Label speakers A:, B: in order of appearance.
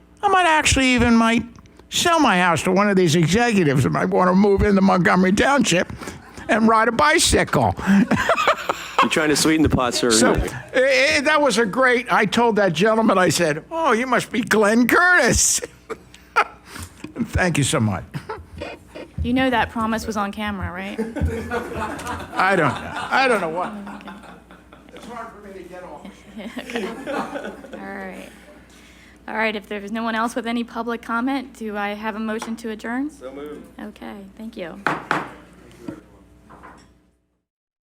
A: actually even might sell my house to one of these executives and might want to move into Montgomery Township and ride a bicycle.
B: You're trying to sweeten the pot, sir.
A: So eh, eh, that was a great. I told that gentleman, I said, "Oh, you must be Glenn Curtis." Thank you so much.
C: You know that promise was on camera, right?
A: I don't. I don't know what. It's hard for me to get off.
C: All right. All right, if there's no one else with any public comment, do I have a motion to adjourn? So moved. Okay, thank you.